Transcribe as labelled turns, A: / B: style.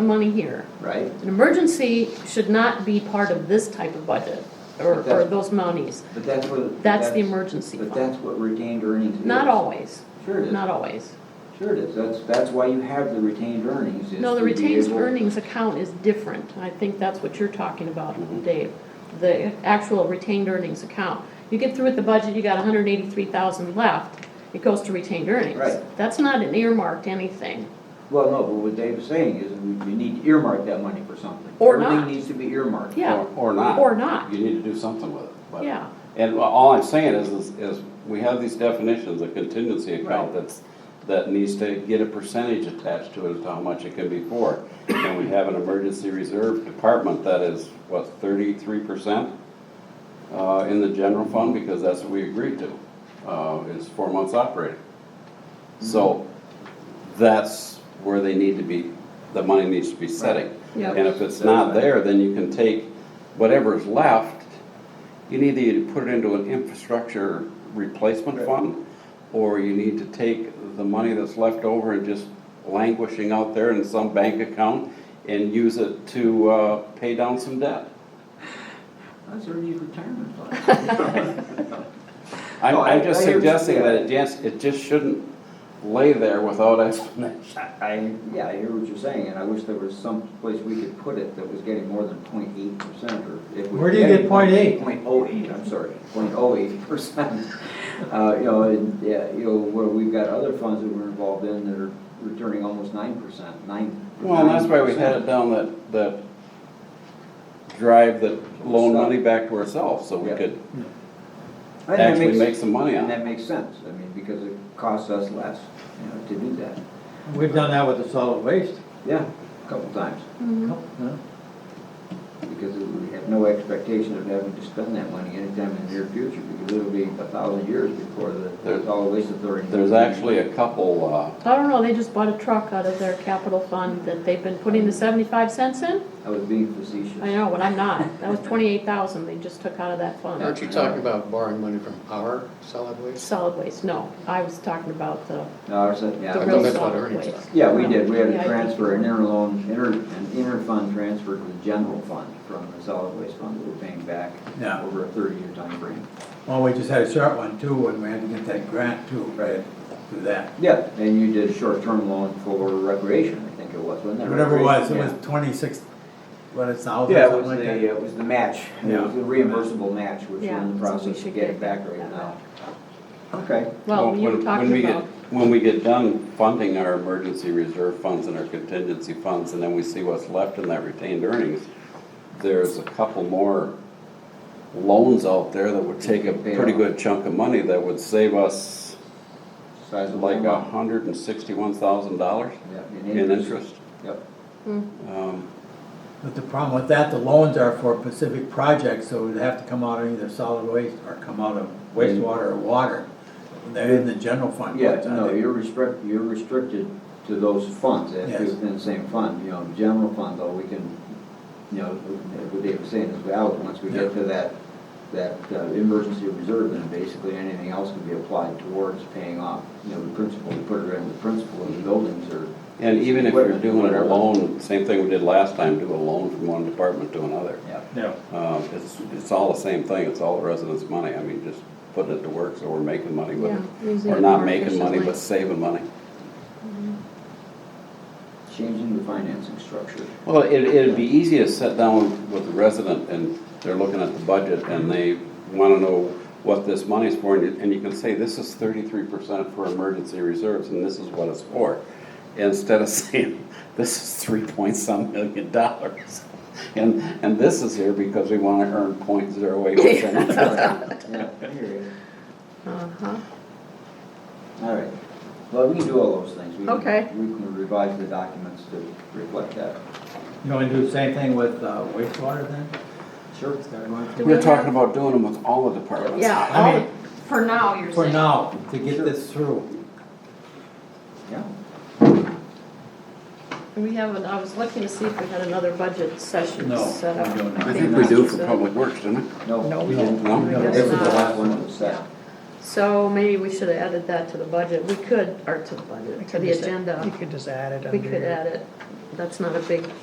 A: the money here.
B: right?
A: An emergency should not be part of this type of budget or, or those monies.
B: But that's what.
A: That's the emergency
B: But
A: fund.
B: that's what retained earnings is.
A: Not always,
B: Sure it is,
A: not always.
B: sure it is, that's, that's why you have the retained earnings. is
A: No, the
B: to be
A: retained
B: able-
A: earnings account is different. I think that's what you're talking
B: Mm-hmm.
A: about, Dave. The actual retained earnings account. You get through with the budget, you got hundred eighty-three thousand left, it goes to retained earnings.
B: Right.
A: That's not an earmarked anything.
B: Well, no, but what Dave is saying is we- you need to earmark that money for something.
A: Or not.
B: Everything needs to be earmarked.
A: Yeah.
C: Or or not.
A: Or not.
C: You need to do something with it. but-
A: Yeah.
C: And all I'm saying is, is, is we have these definitions, a contingency account
B: Right.
C: that's, that needs to get a percentage attached to it as to how much it can be for. And we have an emergency reserve department that is, what, thirty-three percent? Uh, in the general fund, because that's what we agreed to, uh, is four months operating.
A: Mm-hmm.
C: So, that's where they need to be, the money needs to be setting.
A: Yep.
C: And if it's not there, then you can take whatever's left, you need to either put it into an infrastructure replacement
B: Right.
C: fund, or you need to take the money that's left over and just languishing out there in some bank account and use it to, uh, pay down some debt.
B: That's early retirement fund.
C: I'm,
B: No, I-
C: I'm just
B: I hear what you're
C: suggesting
B: saying.
C: that it just, it just shouldn't lay there without explanation.
B: I, yeah, I hear what you're saying, and I wish there was some place we could put it that was getting more than 0.8 percent, or if we.
D: Where do you get 0.8?
B: Point oh eight, I'm sorry, 0.08 percent. Uh, you know, and, yeah, you know, where we've got other funds that we're involved in that are returning almost nine percent, nine.
C: Well, and that's why we
B: 9%.
C: had it down that, that drive that loan
B: Stop.
C: money back to ourselves, so we
B: Yeah.
C: could
B: I think that
C: actually
B: makes-
C: make some money
B: And
C: on it.
B: that makes sense, I mean, because it costs us less, you know, to do that.
D: We've done that with the solid waste.
B: Yeah, a couple times,
A: Mhm.
D: No?
B: because we have no expectation of having to spend that money anytime in the near future, because it'll be a thousand years before the
C: There-
B: solid waste authority.
C: There's actually a couple, uh,
A: I don't know, they just bought a truck out of their capital fund that they've been putting the seventy-five cents in?
B: I was being facetious.
A: I know, but I'm not. That was twenty-eight thousand they just took out of that fund.
E: Aren't you talking about borrowing money from our solid waste?
A: Solid waste, no. I was talking about the,
B: No, I was, yeah.
A: the
B: I
E: thought
A: real
B: was-
E: that's what
A: solid
E: earnings
A: waste.
B: Yeah, we did, we had
A: Yeah,
B: a
A: I
B: transfer, an
A: think-
B: interloan, inter, an inter-fund transfer to the general fund from the solid waste fund that we're paying back
D: Yeah.
B: over a thirty-year time frame.
D: Well, we just had a short one too, and we had to get that grant too, right, do that.
B: Yeah, and you did a short-term loan for recreation, I think it was, wasn't it?
D: Whatever it was, it was
B: Recreation, yeah.
D: twenty-six, what, it's thousand,
B: Yeah, it was
D: something
B: the, uh,
D: like that?
B: it was the match, it
D: Yeah.
B: was the reimbursable match, which we're
A: Yeah,
B: in the
A: so we
B: process
A: should
B: of getting
A: get
B: back right
A: that
B: now. Okay,
A: Well,
C: when-
A: you were
C: when- when we
A: talking
C: get-
A: about,
C: When we get done funding our emergency reserve funds and our contingency funds, and then we see what's left in that retained earnings, there's a couple more loans out there that would take a
B: Pay
C: pretty
B: off.
C: good chunk of money that would save us
B: size of
C: like a
B: amount.
C: hundred and sixty-one thousand dollars
B: Yeah,
C: in interest.
B: Yep,
C: Um,
D: But the problem with that, the loans are for specific projects, so it'd have to come out of either solid waste or come out of wastewater or water. They're in the general fund.
B: yeah,
D: but, uh,
B: no, you're restrict, you're restricted to those funds, if
D: Yes.
B: you're within the same fund, you know, general fund, though, we can, you know, what Dave was saying is valid, once we get
D: Yeah.
B: to that, that uh, emergency reserve, then basically anything else can be applied towards paying off, you know, the principal, we put it in the principal of the buildings or.
C: And even if you're
B: equipment,
C: doing a
B: whatever.
C: loan, same thing we did last time, do a loan from one department to another.
B: Yeah.
D: Yeah.
C: Um, It's, it's all the same thing, it's all the residents' money, I mean, just putting it to work, so we're making money with
A: yeah,
C: it.
A: using
C: Or
A: it
C: not
A: more
C: making money,
A: efficiently.
C: but saving money.
B: Changing the financing structure.
C: Well, it, it'd be easy to sit down with the resident, and they're looking at the budget, and they wanna know what this money's for, and you- and you can say, this is thirty-three percent for emergency reserves, and this is what it's for. Instead of saying, this is three point some million dollars, and, and this is here because we wanna earn point zero eight percent.
B: Yeah, I hear you.
A: Uh-huh.
B: All right. Well, we can do all those things. We can-
A: Okay.
B: We can revise the documents to reflect that.
D: You wanna do the same thing with uh, wastewater then?
B: Sure.
D: It's gotta go on
A: Do
D: through-
A: we
C: We're talking
A: have-
C: about doing them with all the departments.
A: Yeah,
D: I
A: all
D: mean-
A: the- for now, you're saying.
D: For now, to get this through.
B: Yeah.
A: Do We haven't, I was looking to see if we had another budget session
D: No,
A: set
D: we
A: up.
D: don't.
C: I think we do for public works, don't we?
B: No, we
D: No.
B: didn't.
C: No?
B: This is the last one that was set.
A: So maybe we should have added that to the budget. We could, or to the budget, to the
F: You could just-
A: agenda.
F: You could just add it under.
A: We could add it. That's not a big